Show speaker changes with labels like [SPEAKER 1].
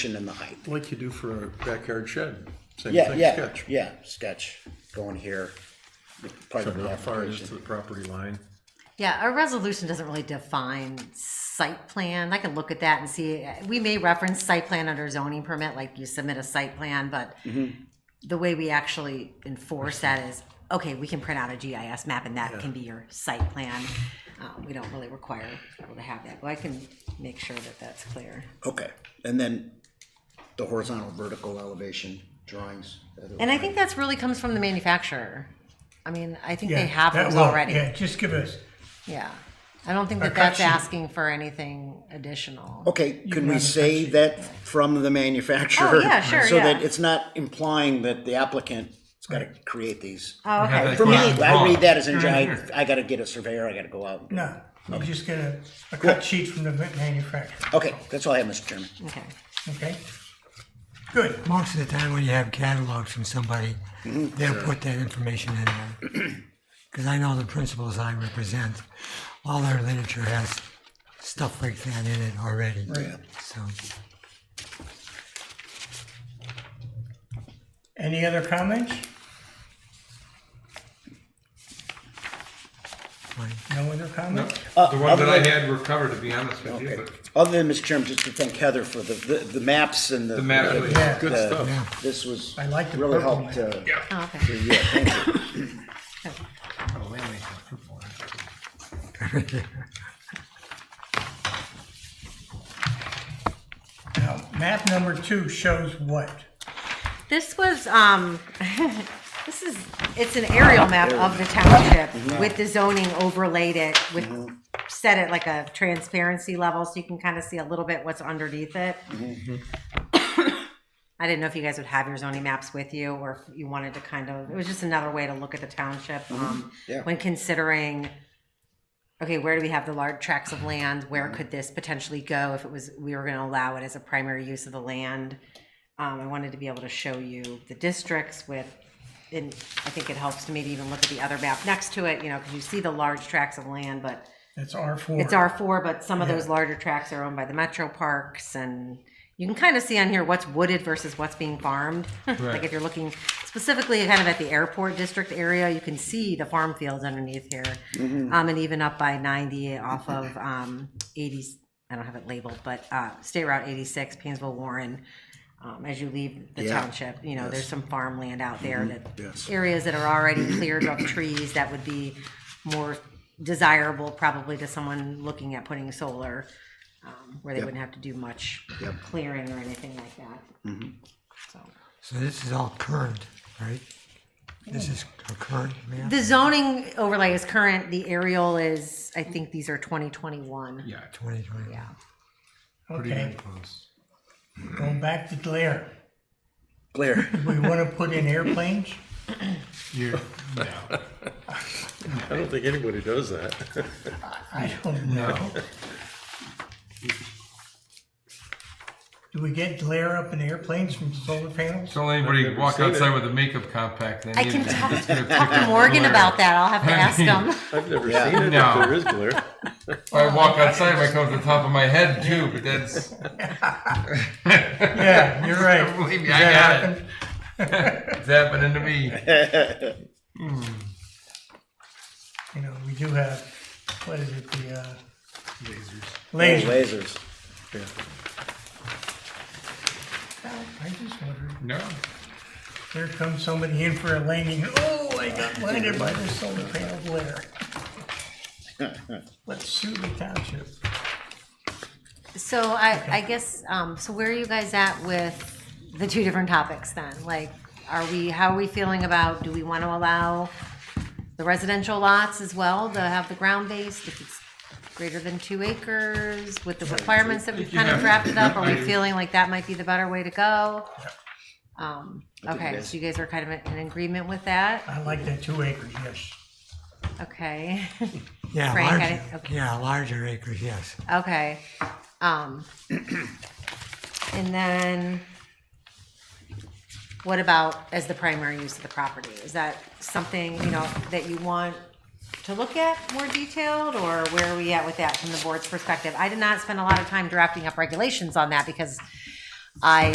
[SPEAKER 1] and the height.
[SPEAKER 2] Like you do for a backyard shed. Same
[SPEAKER 1] Yeah,
[SPEAKER 2] thing,
[SPEAKER 1] yeah,
[SPEAKER 2] sketch.
[SPEAKER 1] yeah, sketch, going here, part of
[SPEAKER 2] Remember
[SPEAKER 1] the
[SPEAKER 2] How far it is to
[SPEAKER 1] application.
[SPEAKER 2] the property line?
[SPEAKER 3] Yeah, our resolution doesn't really define site plan. I can look at that and see, uh, we may reference site plan under zoning permit, like you submit a site plan, but
[SPEAKER 4] Mm-hmm.
[SPEAKER 3] the way we actually enforce that is, okay, we can print out a GIS map and that can be your site plan. Uh, We don't really require people to have that, but I can make sure that that's clear.
[SPEAKER 1] Okay, and then the horizontal, vertical elevation drawings.
[SPEAKER 3] And I think that's really comes from the manufacturer. I mean, I think they
[SPEAKER 4] Yeah,
[SPEAKER 3] have
[SPEAKER 4] that
[SPEAKER 3] those
[SPEAKER 4] will-
[SPEAKER 3] already.
[SPEAKER 4] Yeah, just give us,
[SPEAKER 3] Yeah. I don't think
[SPEAKER 4] Our Oh.
[SPEAKER 3] that that's
[SPEAKER 4] cut sheet.
[SPEAKER 3] asking for anything additional.
[SPEAKER 1] Okay, can we
[SPEAKER 4] have a
[SPEAKER 1] say
[SPEAKER 4] spreadsheet.
[SPEAKER 1] that from the manufacturer?
[SPEAKER 3] Oh, yeah, sure,
[SPEAKER 1] So that
[SPEAKER 3] yeah.
[SPEAKER 1] it's not implying that the applicant's gotta create these.
[SPEAKER 3] Oh,
[SPEAKER 2] have
[SPEAKER 3] okay.
[SPEAKER 2] that
[SPEAKER 1] For me,
[SPEAKER 2] Yeah,
[SPEAKER 1] I read that as in,
[SPEAKER 4] Right
[SPEAKER 1] I,
[SPEAKER 4] here.
[SPEAKER 1] I gotta get a surveyor, I gotta go out. and-
[SPEAKER 4] no, we just get a, a cut sheet from the manufacturer,
[SPEAKER 1] Okay, that's all I have, Mr. Chairman.
[SPEAKER 3] Okay.
[SPEAKER 4] okay? Good,
[SPEAKER 5] Most of the time when you have catalogs from somebody, they'll put that information in there. Because I know the principals I represent, all their literature has stuff like that in it already. So,
[SPEAKER 4] any other comments?
[SPEAKER 5] fine.
[SPEAKER 4] No other
[SPEAKER 6] No,
[SPEAKER 4] comments?
[SPEAKER 6] The ones
[SPEAKER 1] Uh, other
[SPEAKER 6] that I
[SPEAKER 1] than-
[SPEAKER 6] had were covered, to be honest with you,
[SPEAKER 1] Okay.
[SPEAKER 6] but
[SPEAKER 1] Other than, Mr. Chairman, just to thank Heather for the, the, the maps and the.
[SPEAKER 6] the map was
[SPEAKER 4] Yeah.
[SPEAKER 6] good
[SPEAKER 1] the-
[SPEAKER 6] stuff.
[SPEAKER 1] This was.
[SPEAKER 4] I like the
[SPEAKER 1] Really
[SPEAKER 4] purple
[SPEAKER 1] helped, uh,
[SPEAKER 3] Oh, okay.
[SPEAKER 1] yeah, thank you.
[SPEAKER 4] Now, map number two shows what?
[SPEAKER 3] This was, um, this is, it's an aerial map of the township with the zoning overlaid it with, set it like a transparency level so you can kind of see a little bit what's underneath it. I didn't know if you guys would have your zoning maps with you or if you wanted to kind of, it was just another way to look at the township. um,
[SPEAKER 1] Yeah.
[SPEAKER 3] When considering, okay, where do we have the large tracts of land? Where could this potentially go if it was, we were going to allow it as a primary use of the land? Um, I wanted to be able to show you the districts with, and I think it helps to maybe even look at the other map next to it, you know, because you see the large tracts of land, but
[SPEAKER 4] That's R four.
[SPEAKER 3] it's R four, but some of those larger tracts are owned by the metro parks and you can kind of see on here what's wooded versus what's being farmed. Like if you're looking specifically kind of at the airport district area, you can see the farm fields underneath here.
[SPEAKER 1] Mm-hmm.
[SPEAKER 3] Um, and even up by ninety off of, um, eighty, I don't have it labeled, but, uh, State Route eighty-six, Painesville Warren. Um, as you leave the
[SPEAKER 1] Yeah. Mm-hmm.
[SPEAKER 3] township, you know, there's some farmland out there
[SPEAKER 1] Yes.
[SPEAKER 3] that, areas that are already cleared of trees that would be more desirable probably to someone looking at putting solar, um, where they wouldn't have to do much clearing or anything like that. So
[SPEAKER 5] So this is all current, right? This is a current map?
[SPEAKER 3] The zoning overlay is current, the aerial is, I think these are twenty twenty-one.
[SPEAKER 6] Yeah,
[SPEAKER 5] 2020.
[SPEAKER 3] Yeah.
[SPEAKER 6] pretty
[SPEAKER 4] Okay,
[SPEAKER 6] damn close.
[SPEAKER 4] going back to glare,
[SPEAKER 1] Blair,
[SPEAKER 4] we wanna put in airplanes?
[SPEAKER 6] You, no,
[SPEAKER 2] I don't think anybody does that.
[SPEAKER 4] I don't know. Do we get glare up in airplanes from solar panels?
[SPEAKER 6] don't let anybody walk
[SPEAKER 2] seen
[SPEAKER 6] outside
[SPEAKER 2] it.
[SPEAKER 6] with a makeup compact. Then
[SPEAKER 3] I
[SPEAKER 6] you-
[SPEAKER 3] can talk,
[SPEAKER 6] it's gonna pick
[SPEAKER 3] talk to
[SPEAKER 6] up
[SPEAKER 3] Morgan
[SPEAKER 6] glare.
[SPEAKER 3] about that, I'll have to ask him.
[SPEAKER 2] I've never
[SPEAKER 1] Yeah.
[SPEAKER 2] seen it.
[SPEAKER 6] No.
[SPEAKER 2] If there is glare.
[SPEAKER 6] If I walk outside, it might come to the top of my head too. But that's
[SPEAKER 4] Yeah, you're right.
[SPEAKER 6] believe me, I got it. It's happening to me.
[SPEAKER 4] you know, we do have, what is it, the, uh. Lasers. Lasers.
[SPEAKER 1] lasers.
[SPEAKER 4] I just wondered,
[SPEAKER 6] No,
[SPEAKER 4] there comes somebody in for a landing, oh, I got blinded by the solar panel glare. Let's sue the township.
[SPEAKER 3] So I, I guess, um, so where are you guys at with the two different topics then? Like, are we, how are we feeling about, do we want to allow the residential lots as well to have the ground based? If it's greater than two acres with the requirements that we've kind of drafted up, are we feeling like that might be the better way to go? Um, okay, so you guys are kind of in agreement with that?
[SPEAKER 4] I like that two acres, yes.
[SPEAKER 3] Okay,
[SPEAKER 5] Yeah,
[SPEAKER 3] Frank, I
[SPEAKER 5] larger,
[SPEAKER 3] didn't- okay.
[SPEAKER 5] yeah, larger acres, yes.
[SPEAKER 3] okay. Um, and then what about as the primary use of the property? Is that something, you know, that you want to look at more detailed or where are we at with that from the board's perspective? I did not spend a lot of time drafting up regulations on that because I